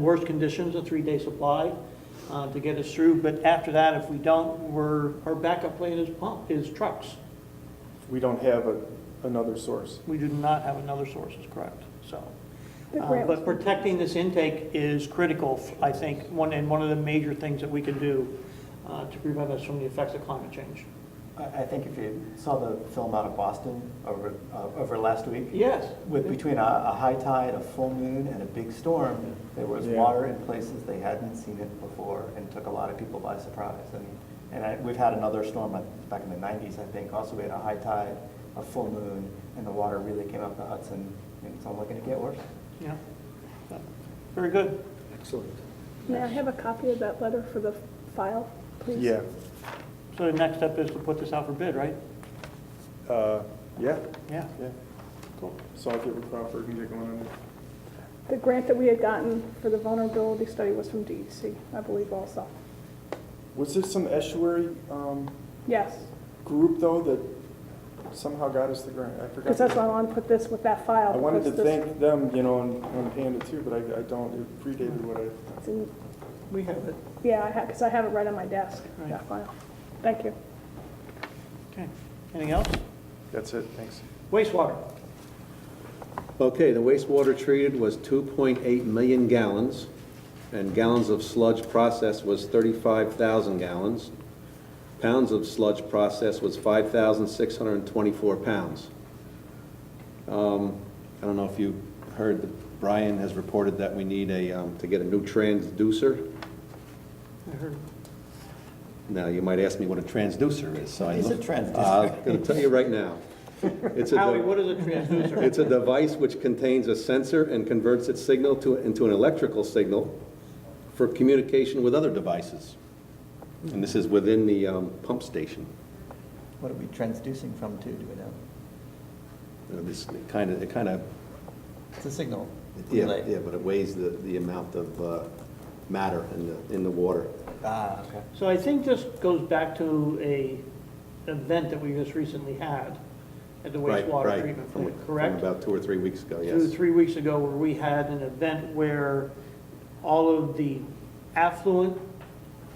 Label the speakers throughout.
Speaker 1: worst conditions, a three-day supply uh, to get us through. But after that, if we don't, we're, our backup plan is pump, is trucks.
Speaker 2: We don't have a- another source.
Speaker 1: We do not have another source, is correct, so.
Speaker 3: But
Speaker 1: uh,
Speaker 3: Grant-
Speaker 1: But protecting this intake is critical, I think, one, and one of the major things that we can do uh, to prevent us from the effects of climate change.
Speaker 4: I, I think if you saw the film out of Boston over, uh, over last week.
Speaker 1: Yes.
Speaker 4: With, between a, a high tide, a full moon, and a big storm, there was
Speaker 2: Yeah.
Speaker 4: water in places they hadn't seen it before, and took a lot of people by surprise. And, and I, we've had another storm uh, back in the nineties, I think, also we had a high tide, a full moon, and the water really came up the Hudson, and it's only gonna get worse.
Speaker 1: Yeah. So, Very good.
Speaker 2: Excellent.
Speaker 3: May I have a copy of that letter for the file, please?
Speaker 2: Yeah,
Speaker 1: So the next step is to put this out for bid, right?
Speaker 2: uh, yeah,
Speaker 1: Yeah,
Speaker 2: yeah.
Speaker 1: cool.
Speaker 2: Southgate with Crawford and get going on it.
Speaker 3: The grant that we had gotten for the vulnerability study was from DEC, I believe also.
Speaker 2: Was there some estuary um,
Speaker 3: Yes,
Speaker 2: group, though, that somehow got us the grant? I forgot.
Speaker 3: because that's why I want to put this with that file.
Speaker 2: I wanted to
Speaker 3: because this-
Speaker 2: thank them, you know, and and Panda too, but I I don't, it predated what I,
Speaker 3: it's in-
Speaker 1: We have it.
Speaker 3: Yeah, I have, because I have it right on my desk,
Speaker 1: Right.
Speaker 3: that file. Thank you.
Speaker 1: Okay. Anything else?
Speaker 2: that's it, thanks.
Speaker 1: Wastewater.
Speaker 5: Okay, the wastewater treated was 2.8 million gallons, and gallons of sludge processed was 35,000 gallons. Pounds of sludge processed was 5,624 pounds. Um, I don't know if you heard, that Brian has reported that we need a, um, to get a new transducer.
Speaker 1: I heard.
Speaker 5: Now, you might ask me what a transducer is, so
Speaker 4: What
Speaker 5: I...
Speaker 4: is a
Speaker 5: Uh,
Speaker 4: transducer?
Speaker 5: I'm going to tell you right now. It's a
Speaker 1: Howie,
Speaker 5: de-
Speaker 1: what is a transducer?
Speaker 5: It's a device which contains a sensor and converts its signal to, into an electrical signal for communication with other devices. And this is within the um, pump station.
Speaker 4: What are we transducing from to, do we know?
Speaker 5: You know, This kind of, it kind of,
Speaker 4: It's a signal
Speaker 5: yeah, yeah, but it weighs the, the amount of uh, matter in the, in the water.
Speaker 4: Ah, okay.
Speaker 1: So I think this goes back to a event that we just recently had at the
Speaker 5: Right,
Speaker 1: wastewater
Speaker 5: right.
Speaker 1: treatment
Speaker 5: From-
Speaker 1: plant, correct?
Speaker 5: From about two or three weeks ago,
Speaker 1: Two,
Speaker 5: yes.
Speaker 1: three weeks ago, where we had an event where all of the affluent,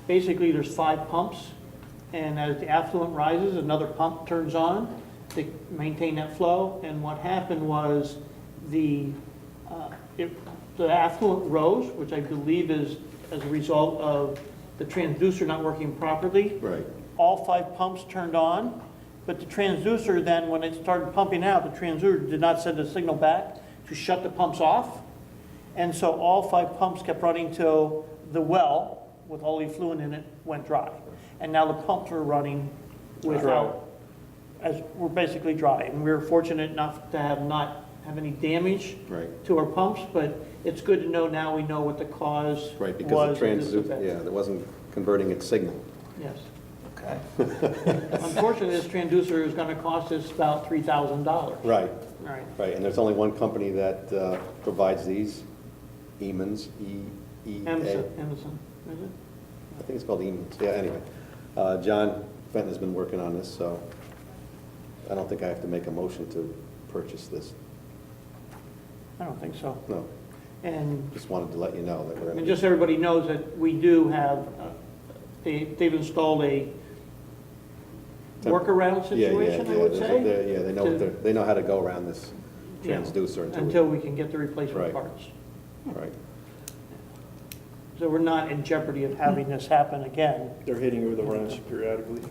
Speaker 1: basically there's five pumps, and as the affluent rises, another pump turns on to maintain that flow, and what happened was the, uh, it- the affluent rose, which I believe is as a result of the transducer not working properly
Speaker 5: Right.
Speaker 1: all five pumps turned on, but the transducer then, when it started pumping out, the transducer did not send a signal back to shut the pumps off. And so all five pumps kept running till the well with all the fluid in it went dry. And now the pumps are running without, as, we're basically dry. And we were fortunate enough to have not have any damage
Speaker 5: Right.
Speaker 1: to our pumps, but it's good to know now we know what the cause
Speaker 5: Right, because
Speaker 1: was
Speaker 5: the
Speaker 1: of this
Speaker 5: transducer,
Speaker 1: event.
Speaker 5: yeah, it wasn't converting its signal.
Speaker 1: Yes.
Speaker 4: Okay.
Speaker 1: Unfortunately, this transducer is going to cost us about three thousand dollars.
Speaker 5: Right,
Speaker 1: Right.
Speaker 5: right, and there's only one company that uh, provides these, Eamon's, E, E, A.
Speaker 1: Emerson, Emerson, is it?
Speaker 5: I think it's called Eamon's, yeah, anyway. Uh, John Fenton has been working on this, so I don't think I have to make a motion to purchase this.
Speaker 1: I don't think so.
Speaker 5: No,
Speaker 1: And,
Speaker 5: just wanted to let you know that we're
Speaker 1: and
Speaker 5: going to,
Speaker 1: just so everybody knows that we do have, uh, they, they've installed a workaround
Speaker 5: yeah, yeah, yeah.
Speaker 1: situation, I would
Speaker 5: there's a-
Speaker 1: say.
Speaker 5: there- Yeah, they know,
Speaker 1: to-
Speaker 5: what they're- they know how to go around this
Speaker 1: yeah,
Speaker 5: transducer until. we-
Speaker 1: Until we can get the replacement
Speaker 5: Right.
Speaker 1: parts.
Speaker 5: Right,
Speaker 1: So we're not in jeopardy of having this happen again.
Speaker 2: They're hitting it with a wrench periodically.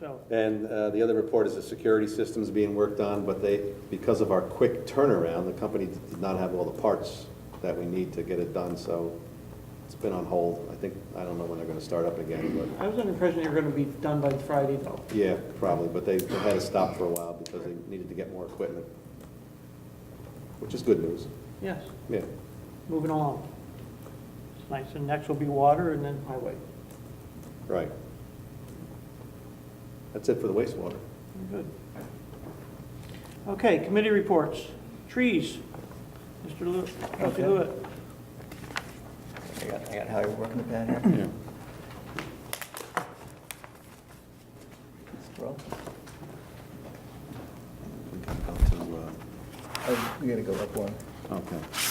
Speaker 1: So,
Speaker 5: and uh, the other report is the security system's being worked on, but they, because of our quick turnaround, the company did not have all the parts that we need to get it done, so it's been on hold. I think, I don't know when they're going to start up again, but
Speaker 1: I was under the impression they were going to be done by Friday though.
Speaker 5: Yeah, probably, but they they had to stop for a while because they needed to get more equipment, which is good news.
Speaker 1: Yes,
Speaker 5: Yeah,
Speaker 1: moving along. Nice, and next will be water and then highway.
Speaker 5: right. That's it for the wastewater.
Speaker 1: Good. Okay, committee reports. Trees, Mr. Lew- Trustee
Speaker 4: Okay.
Speaker 1: Lewitt.
Speaker 4: I got, I got how you're working the pen here. Scroll.
Speaker 5: We gotta go to, uh,
Speaker 4: Oh, you gotta go up one.
Speaker 5: uh, Okay.